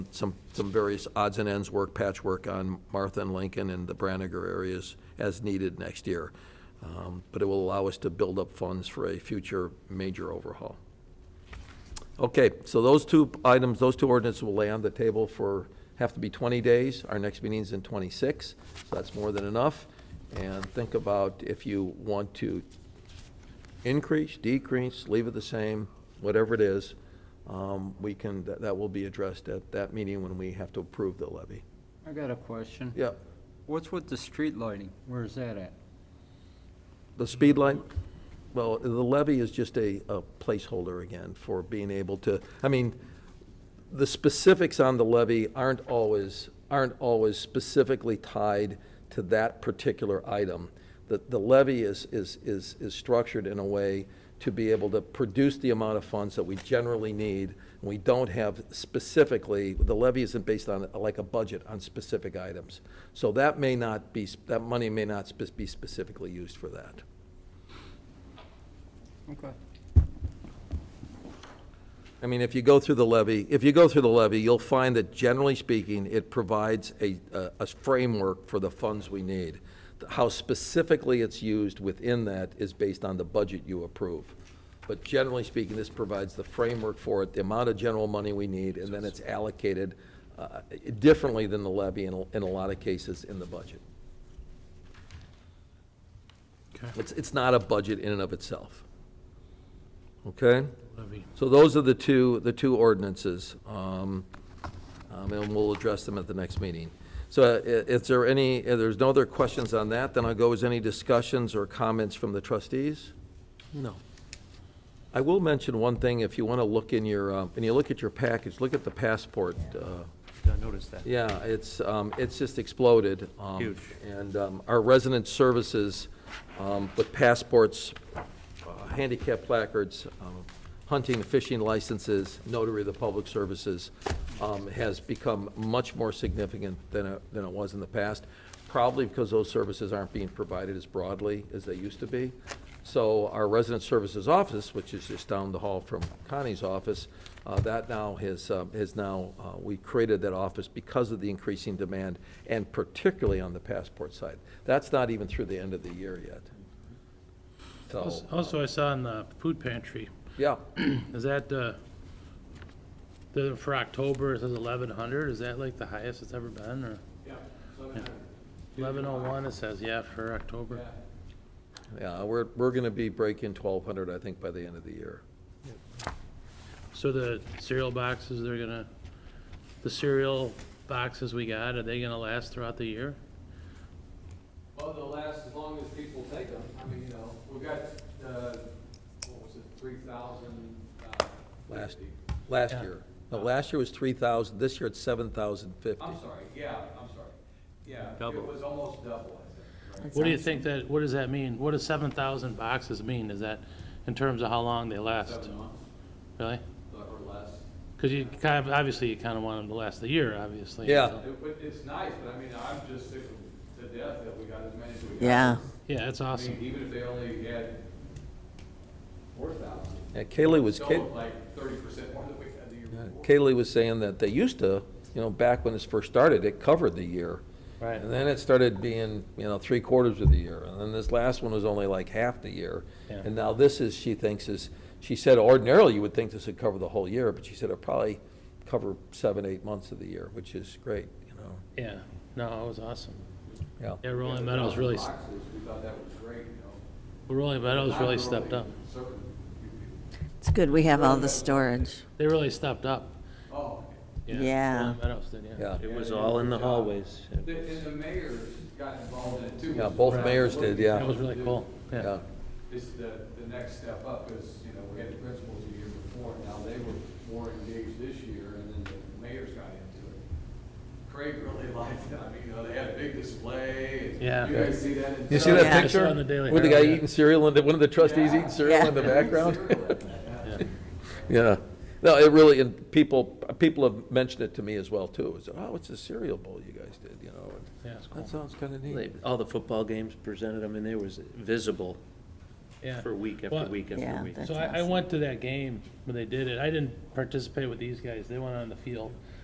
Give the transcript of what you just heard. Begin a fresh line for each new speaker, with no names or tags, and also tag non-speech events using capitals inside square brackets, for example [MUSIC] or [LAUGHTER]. some, some various odds and ends work, patchwork on Martha and Lincoln and the Branniger areas as needed next year. Um, But it will allow us to build up funds for a future major overhaul. Okay, so those two items, those two ordinances will lay on the table for, have to be 20 days. Our next meeting's in 26, so that's more than enough. And think about if you want to increase, decrease, leave it the same, whatever it is, um, we can, that that will be addressed at that meeting when we have to approve the levy.
I got a question.
Yeah,
What's with the street lighting? Where is that at?
the speed line, well, the levy is just a a placeholder again for being able to, I mean, the specifics on the levy aren't always, aren't always specifically tied to that particular item. The, the levy is, is, is, is structured in a way to be able to produce the amount of funds that we generally need. We don't have specifically, the levy isn't based on, like a budget, on specific items. So that may not be, that money may not spe- be specifically used for that.
Okay.
I mean, if you go through the levy, if you go through the levy, you'll find that generally speaking, it provides a, a- a framework for the funds we need. How specifically it's used within that is based on the budget you approve. But generally speaking, this provides the framework for it, the amount of general money we need, and then it's allocated uh, differently than the levy in, a- in a lot of cases in the budget. It's, it's not a budget in and of itself. Okay?
Levy.
So those are the two, the two ordinances, um, um, and we'll address them at the next meeting. So uh, i- is there any, if there's no other questions on that, then I'll go, is any discussions or comments from the trustees? No. I will mention one thing, if you want to look in your, uh, when you look at your package, look at the passport. uh,
I noticed that.
Yeah, it's, um, it's just exploded. um,
Huge.
And um, our resident services um, with passports, uh, handicap placards, um, hunting and fishing licenses, notary of the public services, um, has become much more significant than it, than it was in the past, probably because those services aren't being provided as broadly as they used to be. So our resident services office, which is just down the hall from Connie's office, uh, that now has, um, has now, uh, we created that office because of the increasing demand, and particularly on the passport side. That's not even through the end of the year yet. So,
Als-
oh.
Also, I saw in the food pantry,
yeah.
is that, uh, the, for October, it says eleven hundred, is that like the highest it's ever been, or?
uh,
Yeah. Eleven oh one, it says, yeah, for October.
Yeah, we're, we're going to be breaking 1,200, I think, by the end of the year.
So the cereal boxes, they're gonna, the cereal boxes we got, are they gonna last throughout the year?
Well, they'll last as long as people take them. I mean, you know, we've got, uh, what was it, three thousand, uh,
Last,
fifty.
last
Yeah.
year. No, last year was 3,000, this year it's 7,050.
I'm sorry, yeah, I'm sorry. Yeah,
Double.
it was almost double, I think. right?
What do you think that, what does that mean? What does seven thousand boxes mean? Is that in terms of how long they last?
Seven months
Really?
or less.
Because you kind of, obviously, you kind of want them to last the year, obviously.
Yeah.
so-
It, but it's nice, but I mean, I'm just sick to death that we got as many as we got.
Yeah.
Yeah, that's
I mean,
awesome.
even if they only had four thousand,
Yeah, Kaylee was,
still
Kay-
like thirty percent more than we had the year
yeah,
before.
Kaylee was saying that they used to, you know, back when this first started, it covered the year.
Right.
And then it started being, you know, three quarters of the year, and then this last one was only like half the year.
Yeah.
And now this is, she thinks is, she said ordinarily you would think this would cover the whole year, but she said it'll probably cover seven, eight months of the year, which is great, you know,
Yeah, no, it was awesome.
yeah.
Yeah, Rolling Meadows really, s-
Boxes, we thought that was great, you know.
Rolling Meadows really stepped up.
It's good we have all the storage.
They really stepped up.
Oh,
Yeah.
Rolling Meadows did, yeah.
Yeah,
It was all in the hallways.
and the mayor's got involved in it too.
Yeah, both mayors did, yeah.
That was really cool, yeah.
yeah.
It's the, the next step up is, you know, we had the principals the year before, and now they were more engaged this year, and then the mayor's got into it. Craig really [LAUGHS] liked it, I mean, you know, they had a big display. and
Yeah.
You guys see that? in
You see
town.
Yeah.
that
I saw
picture?
in the Daily
With the guy
Herald, yeah.
eating cereal, and one of the trustees eating cereal
Yeah.
in the background?
[LAUGHS]
[LAUGHS]
Yeah.
Yeah. No, it really, and people, people have mentioned it to me as well, too. It's, oh, it's a cereal bowl you guys did, you know? and
Yeah, it's cool.
That sounds kind of
They-
neat.
All the football games presented, I mean, they was visible
Yeah.
for week
Well,
after week after
Yeah,
week.
that's
So I, I
awesome.
went to that game when they did it. I didn't participate with these guys. They went on the field.